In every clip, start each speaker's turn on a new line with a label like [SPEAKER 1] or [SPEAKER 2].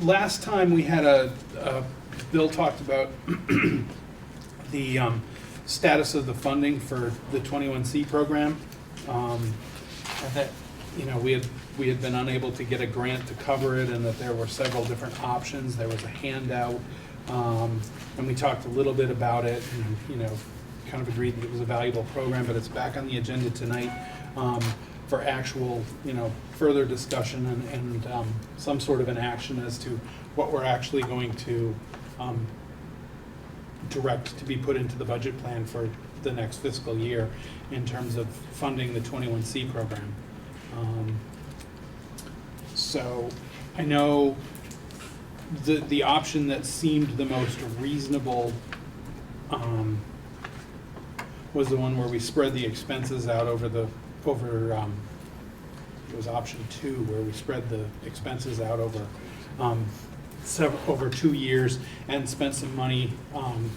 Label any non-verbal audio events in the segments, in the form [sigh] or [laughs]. [SPEAKER 1] last time we had a, uh, Bill talked about [clears throat] the um, status of the funding for the 21C program. um, and That, you know, we had, we had been unable to get a grant to cover it and that there were several different options. There was a handout. um, And we talked a little bit about it and, you know, kind of agreed that it was a valuable program, but it's back on the agenda tonight um, for actual, you know, further discussion and, and um, some sort of an action as to what we're actually going to um, direct to be put into the budget plan for the next fiscal year in terms of funding the 21C program. Um, So I know the, the option that seemed the most reasonable um, was the one where we spread the expenses out over the, over, um, it was option two, where we spread the expenses out over um, several, over two years and spent some money um,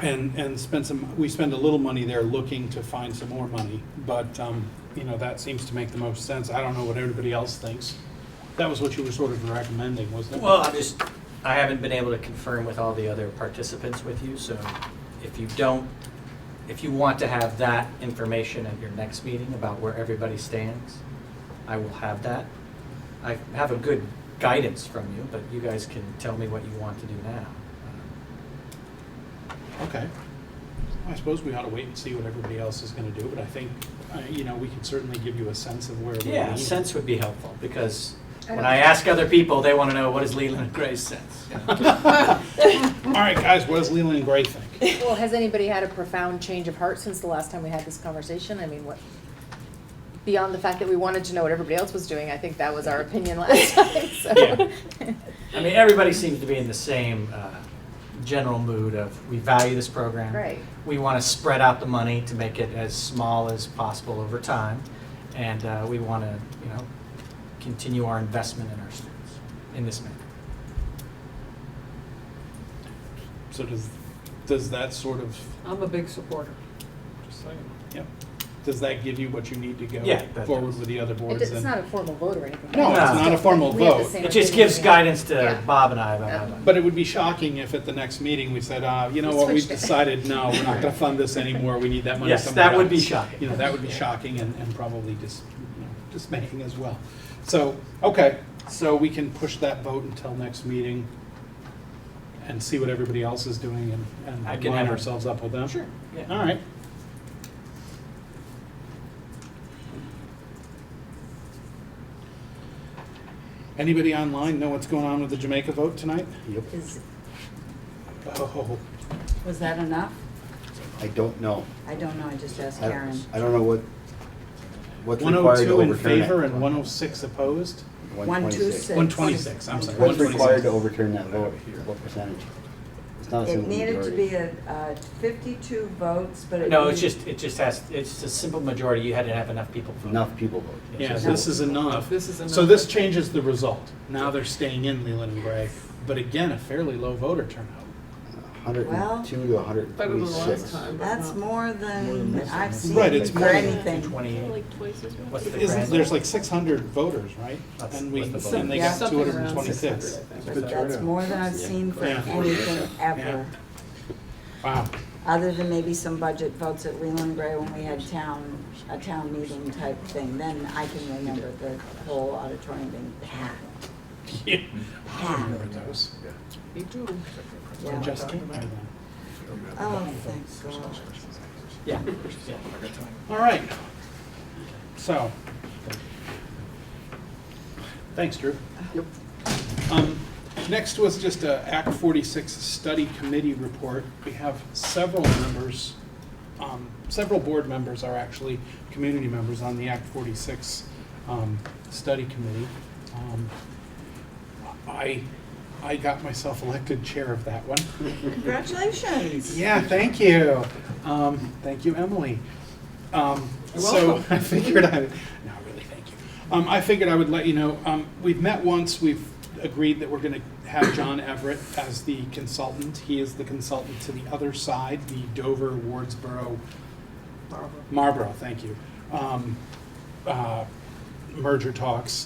[SPEAKER 1] and, and spent some, we spend a little money there looking to find some more money, but, um, you know, that seems to make the most sense. I don't know what everybody else thinks. That was what you were sort of recommending, wasn't it?
[SPEAKER 2] Well, I just, I haven't been able to confirm with all the other participants with you, so if you don't, if you want to have that information at your next meeting about where everybody stands, I will have that. I have a good guidance from you, but you guys can tell me what you want to do now.
[SPEAKER 1] Okay. I suppose we ought to wait and see what everybody else is gonna do, but I think, uh, you know, we can certainly give you a sense of where we're
[SPEAKER 2] Yeah,
[SPEAKER 1] leaning.
[SPEAKER 2] sense would be helpful, because
[SPEAKER 3] I
[SPEAKER 2] when
[SPEAKER 3] don't-
[SPEAKER 2] I ask other people, they want to know, what is Leland and Gray's [laughs] sense?
[SPEAKER 1] All right, guys, what does Leland and Gray think? [laughs]
[SPEAKER 3] Well, has anybody had a profound change of heart since the last time we had this conversation? I mean, what, beyond the fact that we wanted to know what everybody else was doing, I think that was our opinion last [laughs] time, so.
[SPEAKER 2] I mean, everybody seems to be in the same uh, general mood of, we value this program.
[SPEAKER 3] Right.
[SPEAKER 2] We want to spread out the money to make it as small as possible over time. And uh, we want to, you know, continue our investment in our students in this manner.
[SPEAKER 1] So does, does that sort of,
[SPEAKER 4] I'm a big supporter.
[SPEAKER 1] just saying, yeah, does that give you what you need to
[SPEAKER 2] Yeah,
[SPEAKER 1] go
[SPEAKER 2] that
[SPEAKER 1] forward
[SPEAKER 2] does.
[SPEAKER 1] with the other
[SPEAKER 3] It
[SPEAKER 1] boards?
[SPEAKER 3] does- It's
[SPEAKER 1] and-
[SPEAKER 3] not a formal vote or anything.
[SPEAKER 1] No,
[SPEAKER 2] it's not
[SPEAKER 1] a formal
[SPEAKER 3] We have the
[SPEAKER 1] vote.
[SPEAKER 3] same
[SPEAKER 2] It just
[SPEAKER 3] opinion,
[SPEAKER 2] gives
[SPEAKER 3] yeah.
[SPEAKER 2] guidance to
[SPEAKER 3] Yeah.
[SPEAKER 2] Bob and I about how
[SPEAKER 3] Yeah.
[SPEAKER 2] to.
[SPEAKER 1] But it would be shocking if at the next meeting we said, uh, you know what, we've
[SPEAKER 3] Switched it.
[SPEAKER 1] decided, no, we're not gonna fund this anymore, we need that money
[SPEAKER 2] Yes,
[SPEAKER 1] somewhere else.
[SPEAKER 2] that would be shocking.
[SPEAKER 1] You know, that would be shocking and, and probably dis, you know, dismaying as well. So, okay, so we can push that vote until next meeting and see what everybody else is doing and,
[SPEAKER 2] I
[SPEAKER 1] and
[SPEAKER 2] can
[SPEAKER 1] line
[SPEAKER 2] have-
[SPEAKER 1] ourselves up with them.
[SPEAKER 2] Sure, yeah.
[SPEAKER 1] All right. Anybody online know what's going on with the Jamaica vote tonight?
[SPEAKER 5] Yep,
[SPEAKER 6] Is,
[SPEAKER 1] Oh,
[SPEAKER 6] was that enough?
[SPEAKER 5] I don't know.
[SPEAKER 6] I don't know, I just asked
[SPEAKER 5] I
[SPEAKER 6] Karen.
[SPEAKER 5] I don't know what, what's required to
[SPEAKER 1] 102
[SPEAKER 5] overturn it.
[SPEAKER 1] in favor and 106 opposed?
[SPEAKER 5] 126.
[SPEAKER 6] 126.
[SPEAKER 1] 126, I'm sorry.
[SPEAKER 5] What's
[SPEAKER 1] 126.
[SPEAKER 5] required to overturn that vote? What percentage? It's not a
[SPEAKER 6] It
[SPEAKER 5] simple
[SPEAKER 6] needed to be
[SPEAKER 5] majority.
[SPEAKER 6] a, uh, fifty-two votes, but it.
[SPEAKER 2] No, it's
[SPEAKER 6] needed-
[SPEAKER 2] just, it just has, it's a simple majority. You had to have enough people vote.
[SPEAKER 5] Enough people voted.
[SPEAKER 1] Yeah,
[SPEAKER 2] Yes.
[SPEAKER 1] this is enough.
[SPEAKER 4] This is enough.
[SPEAKER 1] So this changes the result. Now they're staying in Leland and Gray, but again, a fairly low voter turnout.
[SPEAKER 5] Hundred and two to hundred and
[SPEAKER 4] Better than last
[SPEAKER 5] twenty-six.
[SPEAKER 4] time. but
[SPEAKER 6] That's
[SPEAKER 4] not-
[SPEAKER 6] more than I've seen
[SPEAKER 1] Right, it's
[SPEAKER 6] for
[SPEAKER 1] more than-
[SPEAKER 6] anything.
[SPEAKER 2] Twenty,
[SPEAKER 7] Like twice as much.
[SPEAKER 2] what's the
[SPEAKER 1] Isn't,
[SPEAKER 2] grand?
[SPEAKER 1] there's like 600 voters, right?
[SPEAKER 2] That's
[SPEAKER 1] And we,
[SPEAKER 2] what the vote
[SPEAKER 1] and they
[SPEAKER 6] is.
[SPEAKER 1] got
[SPEAKER 4] Something around
[SPEAKER 1] 226.
[SPEAKER 4] 600, I think.
[SPEAKER 6] That's more than I've seen for
[SPEAKER 1] Yeah.
[SPEAKER 6] anything ever,
[SPEAKER 1] Wow.
[SPEAKER 6] other than maybe some budget votes at Leland Gray when we had town, a town meeting type thing. Then I can remember the whole auditorium being packed,
[SPEAKER 1] Yeah. [laughs] Remember
[SPEAKER 6] packed,
[SPEAKER 1] those?
[SPEAKER 4] Me too.
[SPEAKER 1] I
[SPEAKER 6] yeah.
[SPEAKER 1] just can't remember them.
[SPEAKER 6] Oh, thank God.
[SPEAKER 2] Yeah, yeah.
[SPEAKER 1] All right. So. Thanks, Drew. Yep. Next was just a Act 46 Study Committee report. We have several members, um, several board members are actually community members on the Act 46 um, Study Committee. Um, I, I got myself elected chair of that one.
[SPEAKER 6] Congratulations.
[SPEAKER 1] Yeah, thank you. Um, thank you, Emily. Um,
[SPEAKER 4] You're
[SPEAKER 1] so
[SPEAKER 4] welcome.
[SPEAKER 1] [laughs] I figured I, no, really, thank you. Um, I figured I would let you know, um, we've met once, we've agreed that we're gonna have John Everett as the consultant. He is the consultant to the other side, the Dover, Wardsboro, Marlboro, thank you. Um, uh, merger talks.